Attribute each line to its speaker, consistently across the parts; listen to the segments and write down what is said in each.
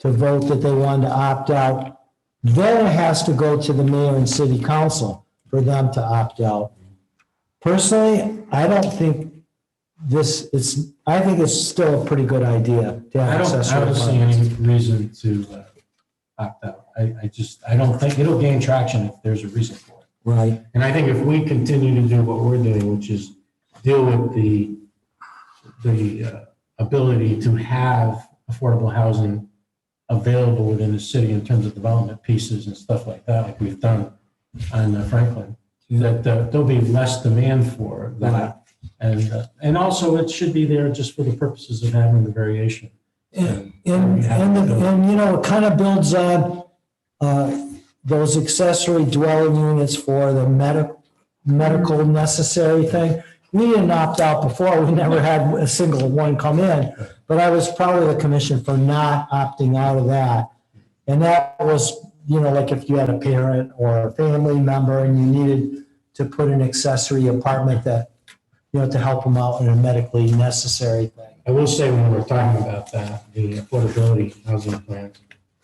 Speaker 1: to vote that they wanted to opt out, then it has to go to the mayor and city council for them to opt out. Personally, I don't think this, it's, I think it's still a pretty good idea to
Speaker 2: I
Speaker 1: have
Speaker 2: don't, I
Speaker 1: accessory
Speaker 2: don't see
Speaker 1: apartments.
Speaker 2: any reason to uh, opt out. I, I just, I don't think, it'll gain traction if there's a reason for it.
Speaker 1: Right,
Speaker 2: And I think if we continue to do what we're doing, which is deal with the, the uh, ability to have affordable housing available within the city in terms of development pieces and stuff like that, like we've done on uh, Franklin, that uh, there'll be less demand for that. And, uh, and also it should be there just for the purposes of having the variation.
Speaker 1: And, and, and, and, you know, it kind of builds on, uh, those accessory dwelling units for the medic, medical necessary thing. We didn't opt out before, we never had a single one come in, but I was proud of the commission for not opting out of that. And that was, you know, like if you had a parent or a family member and you needed to put an accessory apartment that, you know, to help them out in a medically necessary thing.
Speaker 2: I will say when we're talking about that, the affordability housing plan,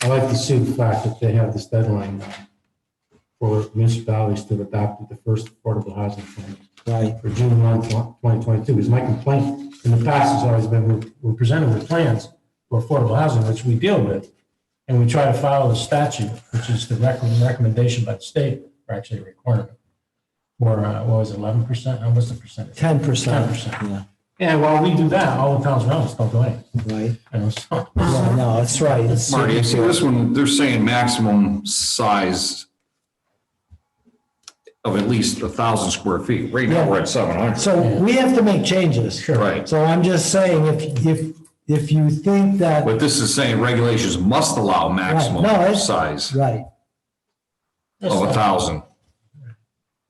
Speaker 2: I like to see the fact that they have this deadline for municipalities to adopt the first affordable housing plan
Speaker 1: Right.
Speaker 2: for June 1, 2022. Because my complaint in the past has always been we're- we're presented with plans for affordable housing, which we deal with. And we try to follow the statute, which is the rec- recommendation by the state, or actually a requirement. Or uh, what was it, 11%? How was the percentage?
Speaker 1: Ten percent.
Speaker 2: 10%.
Speaker 1: Yeah,
Speaker 2: And while we do that, all the towns around us don't do anything.
Speaker 1: right.
Speaker 2: you know, so.
Speaker 3: Oh,
Speaker 1: Yeah, no, that's right. It's-
Speaker 3: Marty, you see this one, they're saying maximum size of at least a thousand square feet. Right now, we're at seven hundred.
Speaker 1: So we have to make changes. Sure.
Speaker 3: Right.
Speaker 1: So I'm just saying, if, if, if you think that,
Speaker 3: But this is saying regulations must allow
Speaker 1: Right, no,
Speaker 3: maximum
Speaker 1: it's-
Speaker 3: size
Speaker 1: right,
Speaker 3: of a thousand.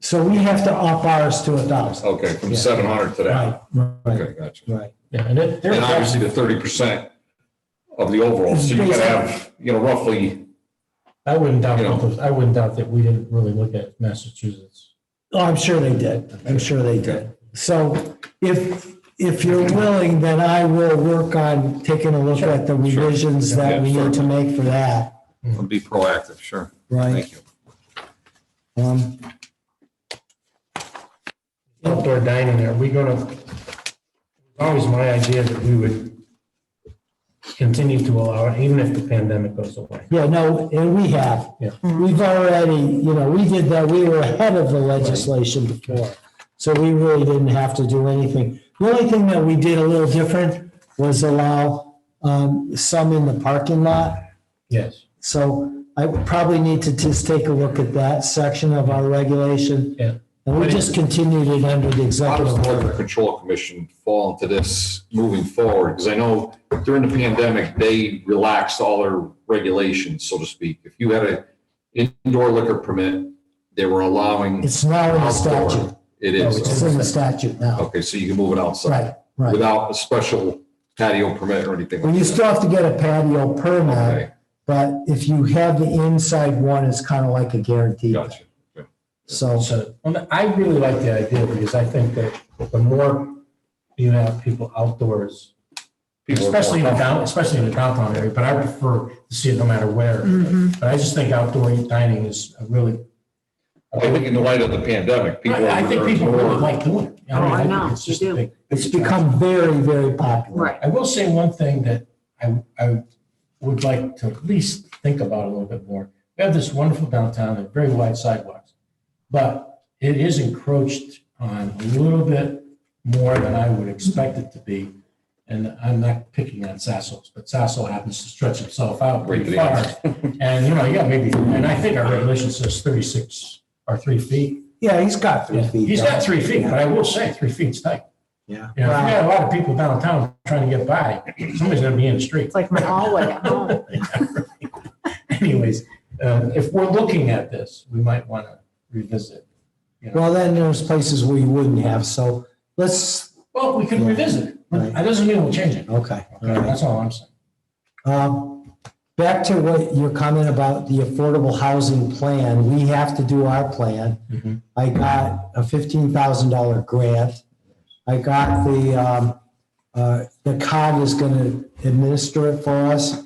Speaker 1: so we have to up ours to a thousand.
Speaker 3: Okay, from
Speaker 1: Yeah.
Speaker 3: seven hundred to
Speaker 1: Right, right,
Speaker 3: Oh. Okay, gotcha.
Speaker 1: right.
Speaker 2: Yeah, and it, there,
Speaker 3: And obviously the thirty percent of the overall, so you gotta have, you know, roughly,
Speaker 2: I wouldn't doubt,
Speaker 3: you know.
Speaker 2: that those- I wouldn't doubt that we didn't really look at Massachusetts.
Speaker 1: Oh, I'm sure they did. I'm sure they did. So if, if you're willing, then I will work on taking a look at the revisions that we need to make for that,
Speaker 3: I'll be proactive, sure.
Speaker 1: right?
Speaker 3: Thank you.
Speaker 1: Um,
Speaker 2: Outdoor dining, are we gonna, always my idea that we would continue to allow it, even if the pandemic goes away.
Speaker 1: Yeah, no, and we have.
Speaker 2: Yeah.
Speaker 1: We've already, you know, we did that, we were ahead of the legislation before. So we really didn't have to do anything. The only thing that we did a little different was allow um, some in the parking lot.
Speaker 2: Yes.
Speaker 1: So I would probably need to just take a look at that section of our regulation.
Speaker 2: Yeah.
Speaker 1: And we just continued it under the
Speaker 3: How does
Speaker 1: executive
Speaker 3: the
Speaker 1: order.
Speaker 3: Liquor Control Commission fall into this moving forward? Because I know during the pandemic, they relaxed all their regulations, so to speak. If you had an indoor liquor permit, they were allowing.
Speaker 1: It's now in the statute.
Speaker 3: outdoor. It
Speaker 1: It's
Speaker 3: is.
Speaker 1: in the statute now.
Speaker 3: Okay, so you can move it outside
Speaker 1: Right, right.
Speaker 3: without a special patio permit or anything
Speaker 1: Well, you
Speaker 3: like that.
Speaker 1: still have to get a patio permit.
Speaker 3: Okay,
Speaker 1: But if you have the inside one, it's kind of like a guarantee.
Speaker 3: gotcha.
Speaker 1: So,
Speaker 2: So, and I really like the idea because I think that the more you have people outdoors,
Speaker 3: People are more
Speaker 2: especially in the down, especially in the downtown area, but I prefer to see it no matter where.
Speaker 4: Mm-hmm.
Speaker 2: But I just think outdoor dining is a really
Speaker 3: I think in the light of the pandemic, people.
Speaker 2: I I think
Speaker 3: are
Speaker 2: people really
Speaker 3: more-
Speaker 2: like doing it.
Speaker 4: Oh, I
Speaker 2: mean, think
Speaker 4: know,
Speaker 2: it's
Speaker 4: they
Speaker 2: just a
Speaker 4: do.
Speaker 2: big-
Speaker 1: it's become very, very popular.
Speaker 4: Right.
Speaker 2: I will say one thing that I, I would like to at least think about a little bit more. We have this wonderful downtown and very wide sidewalks, but it is encroached on a little bit more than I would expect it to be. And I'm not picking on Sasso, but Sasso happens to stretch himself out
Speaker 3: Right to
Speaker 2: pretty
Speaker 3: the
Speaker 2: far. And, you know, yeah, maybe, and I think our regulation says 36 or three feet.
Speaker 1: Yeah, he's got three feet.
Speaker 2: He's
Speaker 1: down.
Speaker 2: got three feet, but I will say, three feet's tight.
Speaker 1: Yeah.
Speaker 2: You know, if you got a lot of people downtown trying to get by, somebody's gonna be in the street.
Speaker 4: It's like my hallway at home.
Speaker 2: Anyways, um, if we're looking at this, we might wanna revisit.
Speaker 1: Well, then there's places where you wouldn't have, so let's,
Speaker 2: Well, we can revisit it.
Speaker 1: Right.
Speaker 2: That doesn't mean we'll change it.
Speaker 1: okay. all
Speaker 2: Okay,
Speaker 1: right.
Speaker 2: That's all I'm saying.
Speaker 1: Um, Back to what your comment about the affordable housing plan, we have to do our plan.
Speaker 2: Mhm.
Speaker 1: I got a fifteen thousand dollar grant. I got the, um, uh, the COG is gonna administer it for us.